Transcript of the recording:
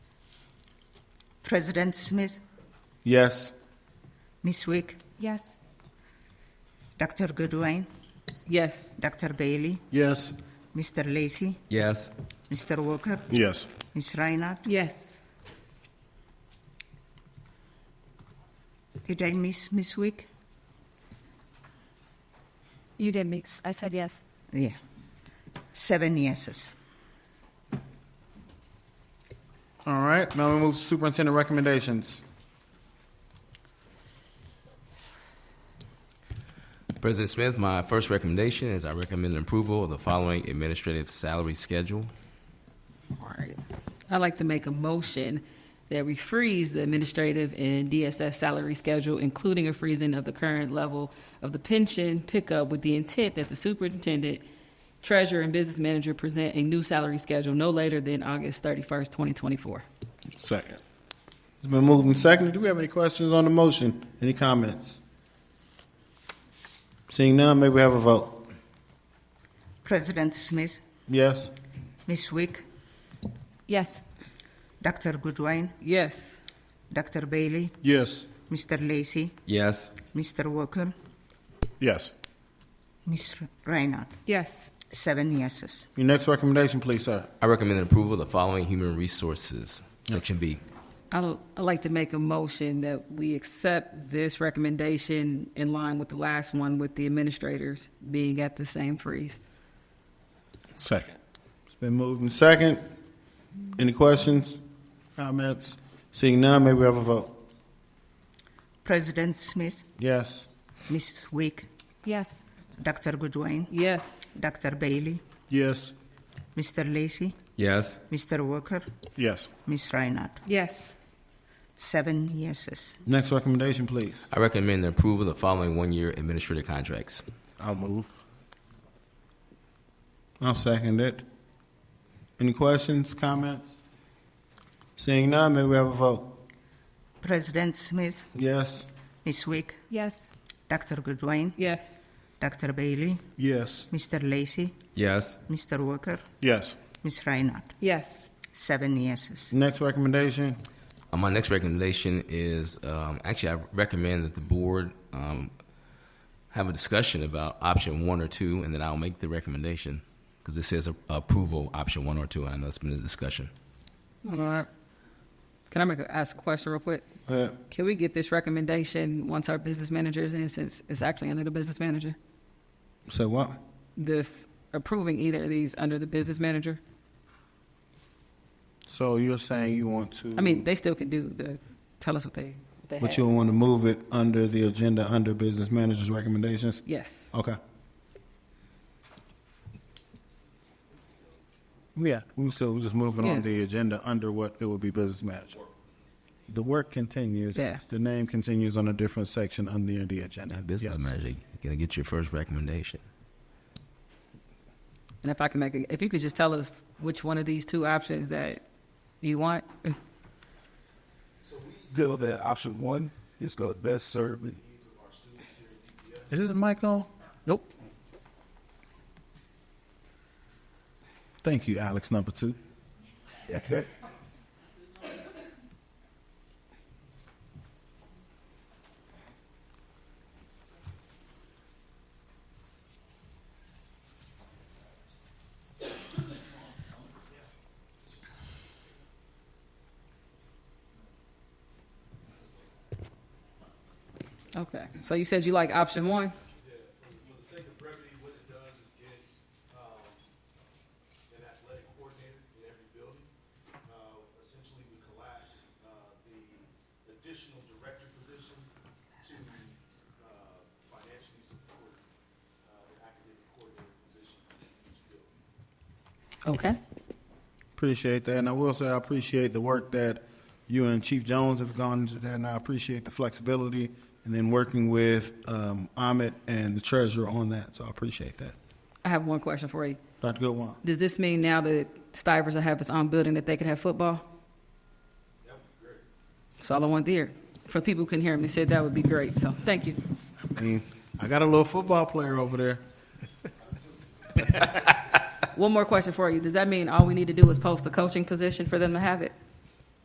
President Smith, Yes. Ms. Wick, Yes. Dr. Goodwin, Yes. Dr. Bailey, Yes. Mr. Lacey, Yes. Mr. Walker, Yes. Ms. Reinhardt. Yes. Did I miss Ms. Wick? You did mix. I said yes. Yeah. Seven yeses. All right, now we move to superintendent recommendations. President Smith, my first recommendation is I recommend approval of the following administrative salary schedule. All right. I'd like to make a motion that we freeze the administrative and DSS salary schedule, including a freezing of the current level of the pension pickup with the intent that the superintendent, treasurer, and business manager present a new salary schedule no later than August thirty-first, twenty twenty-four. Second. It's been moved and seconded. Do we have any questions on the motion? Any comments? Seeing none, may we have a vote? President Smith, Yes. Ms. Wick, Yes. Dr. Goodwin, Yes. Dr. Bailey, Yes. Mr. Lacey, Yes. Mr. Walker, Yes. Ms. Reinhardt. Yes. Seven yeses. Your next recommendation, please, sir. I recommend approval of the following human resources, section B. I'd I'd like to make a motion that we accept this recommendation in line with the last one with the administrators being at the same freeze. Second. It's been moved and second. Any questions? Comments? Seeing none, may we have a vote? President Smith, Yes. Ms. Wick, Yes. Dr. Goodwin, Yes. Dr. Bailey, Yes. Mr. Lacey, Yes. Mr. Walker, Yes. Ms. Reinhardt. Yes. Seven yeses. Next recommendation, please. I recommend approval of the following one-year administrative contracts. I'll move. I'll second it. Any questions, comments? Seeing none, may we have a vote? President Smith, Yes. Ms. Wick, Yes. Dr. Goodwin, Yes. Dr. Bailey, Yes. Mr. Lacey, Yes. Mr. Walker, Yes. Ms. Reinhardt. Yes. Seven yeses. Next recommendation? Uh, My next recommendation is, um, actually, I recommend that the board um, have a discussion about option one or two, and then I'll make the recommendation, because this is a- approval, option one or two, and I know it's been a discussion. All right. Can I make a, ask a question real quick? Uh, Can we get this recommendation once our business manager is in, since it's actually under the business manager? Say what? This approving either of these under the business manager? So you're saying you want to? I mean, they still can do the, tell us what they, what they But have. you want to move it under the agenda, under business manager's recommendations? Yes. Okay. Yeah, We still, we're just moving Yeah. on the agenda under what it would be business manager. The work continues. Yeah. The name continues on a different section under the agenda. Now, Business Yes. manager, you're going to get your first recommendation. And if I can make, a- if you could just tell us which one of these two options that you want? good with that. Option one is the best serve the needs of our students here Is this mic on? Nope. Thank you, Alex, number two. at DSS. Okay. So you said you like option one? for the sake of brevity, what it does is get, um, an athletic coordinator in every building. Uh, essentially, we collapse, uh, the additional director position to, uh, financially support, uh, the academic coordinator position in each building. Okay. Appreciate that. And I will say I appreciate the work that you and Chief Jones have gone into that, and I appreciate the flexibility and then working with um, Ahmet and the treasurer on that. So I appreciate that. I have one question for you. Dr. Goodwin. Does this mean now that Stivers will have its own building that they could have football? That would be great. That's all I want to hear. For people who couldn't hear me, said that would be great. So thank you. I mean, I got a little football player over there. One more question for you. Does that mean all we need to do is post a coaching position for them to have it?